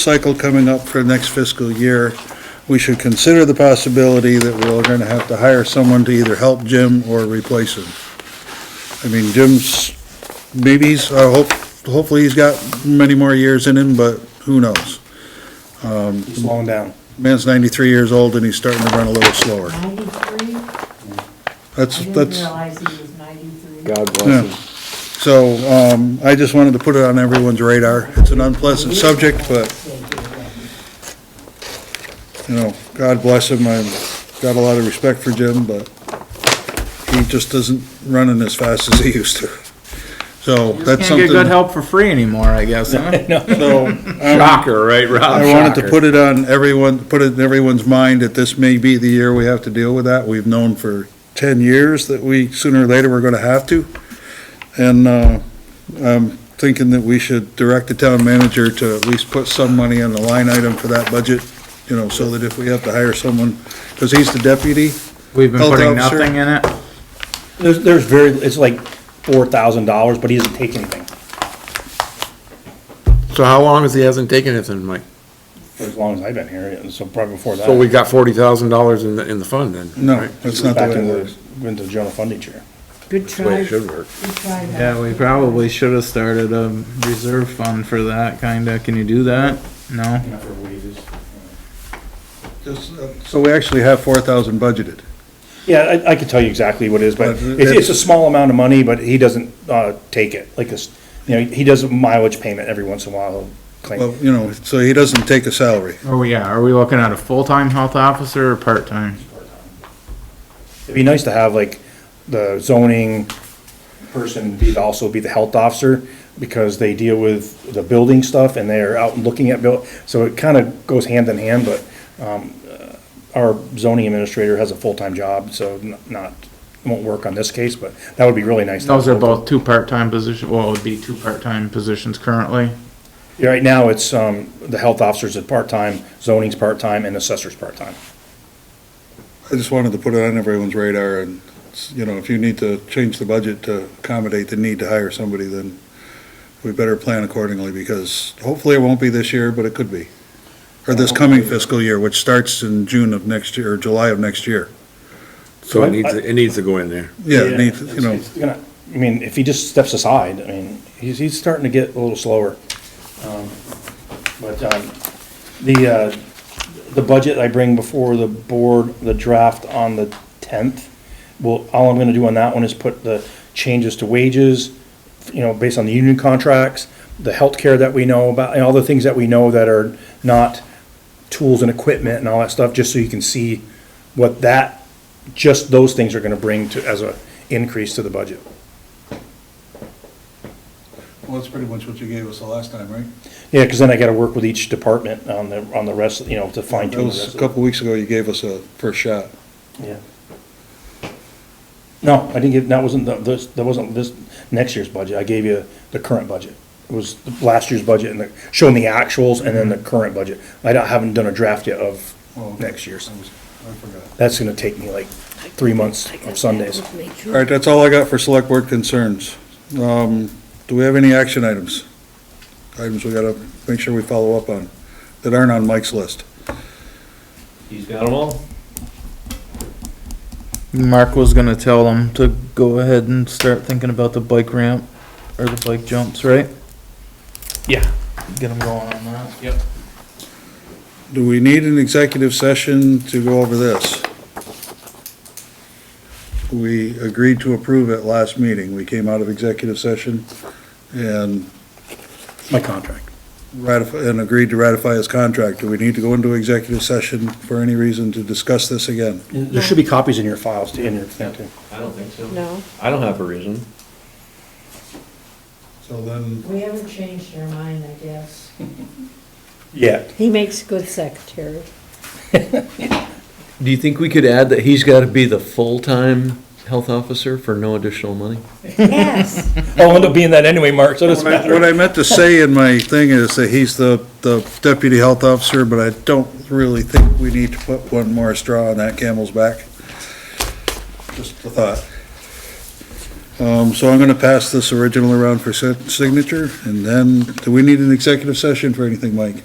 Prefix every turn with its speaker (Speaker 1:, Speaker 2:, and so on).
Speaker 1: cycle coming up for next fiscal year, we should consider the possibility that we're gonna have to hire someone to either help Jim or replace him. I mean, Jim's, maybe he's, I hope, hopefully he's got many more years in him, but who knows?
Speaker 2: slowing down.
Speaker 1: Man's ninety-three years old and he's starting to run a little slower.
Speaker 3: 93? I
Speaker 1: That's,
Speaker 3: didn't
Speaker 1: that's,
Speaker 3: realize he was 93.
Speaker 2: God
Speaker 1: yeah.
Speaker 2: bless him.
Speaker 1: So, um, I just wanted to put it on everyone's radar. It's an unpleasant subject, but you know, God bless him, I've got a lot of respect for Jim, but he just isn't running as fast as he used to. So that's
Speaker 4: Can't get good
Speaker 1: something,
Speaker 4: help for free anymore, I guess, huh?
Speaker 1: so um,
Speaker 4: Shocker, right, Rob?
Speaker 1: I wanted to
Speaker 4: Shocker.
Speaker 1: put it on everyone, put it in everyone's mind that this may be the year we have to deal with that. We've known for ten years that we, sooner or later, we're gonna have to. And, uh, I'm thinking that we should direct the town manager to at least put some money on the line item for that budget, you know, so that if we have to hire someone, because he's the deputy,
Speaker 4: We've been
Speaker 1: Health
Speaker 4: putting
Speaker 1: officer.
Speaker 4: nothing in it.
Speaker 2: There's, there's very, it's like four thousand dollars, but he doesn't take anything
Speaker 5: So how long has he hasn't taken it then, Mike?
Speaker 2: for as long as I've been here, and so probably before that.
Speaker 5: So we got forty thousand dollars in the, in the fund then?
Speaker 1: no,
Speaker 5: right?
Speaker 1: that's not the
Speaker 2: Back
Speaker 1: way it
Speaker 2: into,
Speaker 1: works.
Speaker 2: the- into the general fund each year.
Speaker 3: Good
Speaker 5: That's the way
Speaker 3: try,
Speaker 5: it
Speaker 3: good
Speaker 5: should work.
Speaker 3: try. Matt.
Speaker 4: Yeah, we probably should have started a reserve fund for that, kinda. Can you do that? No?
Speaker 2: For wages.
Speaker 1: Just, uh, So we actually have four thousand budgeted.
Speaker 2: Yeah, I, I could tell you exactly what it is, but
Speaker 1: But
Speaker 2: it's, it's a small amount of money, but he doesn't, uh, take it, like, it's, you know, he does a mileage payment every once in a while, he'll
Speaker 1: Well,
Speaker 2: claim.
Speaker 1: you know, so he doesn't take a salary.
Speaker 4: Are we, yeah, are we looking at a full-time health officer or part-time?
Speaker 2: It'd be nice to have, like, the zoning person be, also be the health officer, because they deal with the building stuff, and they're out looking at buil, so it kinda goes hand in hand, but, um, uh, our zoning administrator has a full-time job, so n- not, won't work on this case, but that would be really nice. to have
Speaker 4: Those are
Speaker 2: both.
Speaker 4: both two part-time positions, well, it would be two part-time positions currently.
Speaker 2: Yeah, Right now, it's, um, the health officers is part-time, zoning's part-time, and assessor's part-time.
Speaker 1: I just wanted to put it on everyone's radar and, you know, if you need to change the budget to accommodate the need to hire somebody, then we better plan accordingly because hopefully it won't be this year, but it could be. Or this coming fiscal year, which starts in June of next year, or July of next year.
Speaker 5: So it needs, it needs to go in there.
Speaker 1: Yeah, it needs, you know,
Speaker 2: It's gonna- I mean, if he just steps aside, I mean, he's, he's starting to get a little slower. Um, But, um, the, uh, the budget I bring before the board, the draft on the tenth, well, all I'm gonna do on that one is put the changes to wages, you know, based on the union contracts, the healthcare that we know about, and all the things that we know that are not tools and equipment and all that stuff, just so you can see what that, just those things are gonna bring to, as a increase to the budget.
Speaker 1: well, that's pretty much what you gave us the last time, right?
Speaker 2: Yeah, because then I gotta work with each department on the, on the rest, you know, to fine
Speaker 1: That
Speaker 2: tune the
Speaker 1: was
Speaker 2: rest
Speaker 1: a
Speaker 2: of it.
Speaker 1: couple weeks ago, you gave us a first shot.
Speaker 2: Yeah. No, I didn't give, that wasn't, the- this, that wasn't this, next year's budget, I gave you the current budget. It was last year's budget and the, showing the actuals and then the current budget. I don't- haven't done a draft yet of next year's.
Speaker 1: I forgot.
Speaker 2: That's gonna take me like three months of Sundays.
Speaker 1: All right, that's all I got for select board concerns. Um, do we have any action items? Items we gotta make sure we follow up on that aren't on Mike's list.
Speaker 6: He's got them all.
Speaker 4: Mark was gonna tell them to go ahead and start thinking about the bike ramp or the bike jumps, right?
Speaker 6: Yeah.
Speaker 4: Get them going on that.
Speaker 1: Do we need an executive session to go over this? We agreed to approve at last meeting. We came out of executive session and
Speaker 2: My contract.
Speaker 1: ratify, and agreed to ratify his contract. Do we need to go into executive session for any reason to discuss this again?
Speaker 2: There should be copies in your files, in your thing too.
Speaker 6: I don't think so.
Speaker 7: No.
Speaker 6: I don't have a reason.
Speaker 1: So then.
Speaker 3: We haven't changed our mind, I guess.
Speaker 2: Yeah.
Speaker 7: He makes a good secretary.
Speaker 6: Do you think we could add that he's got to be the full-time health officer for no additional money?
Speaker 7: Yes.
Speaker 2: I'll end up being that anyway, Mark, so it doesn't
Speaker 1: What I-
Speaker 2: matter.
Speaker 1: what I meant to say in my thing is that he's the, the deputy health officer, but I don't really think we need to put one more straw on that camel's back. Just a thought. Um, so I'm gonna pass this original around for si- signature, and then, do we need an executive session for anything, Mike?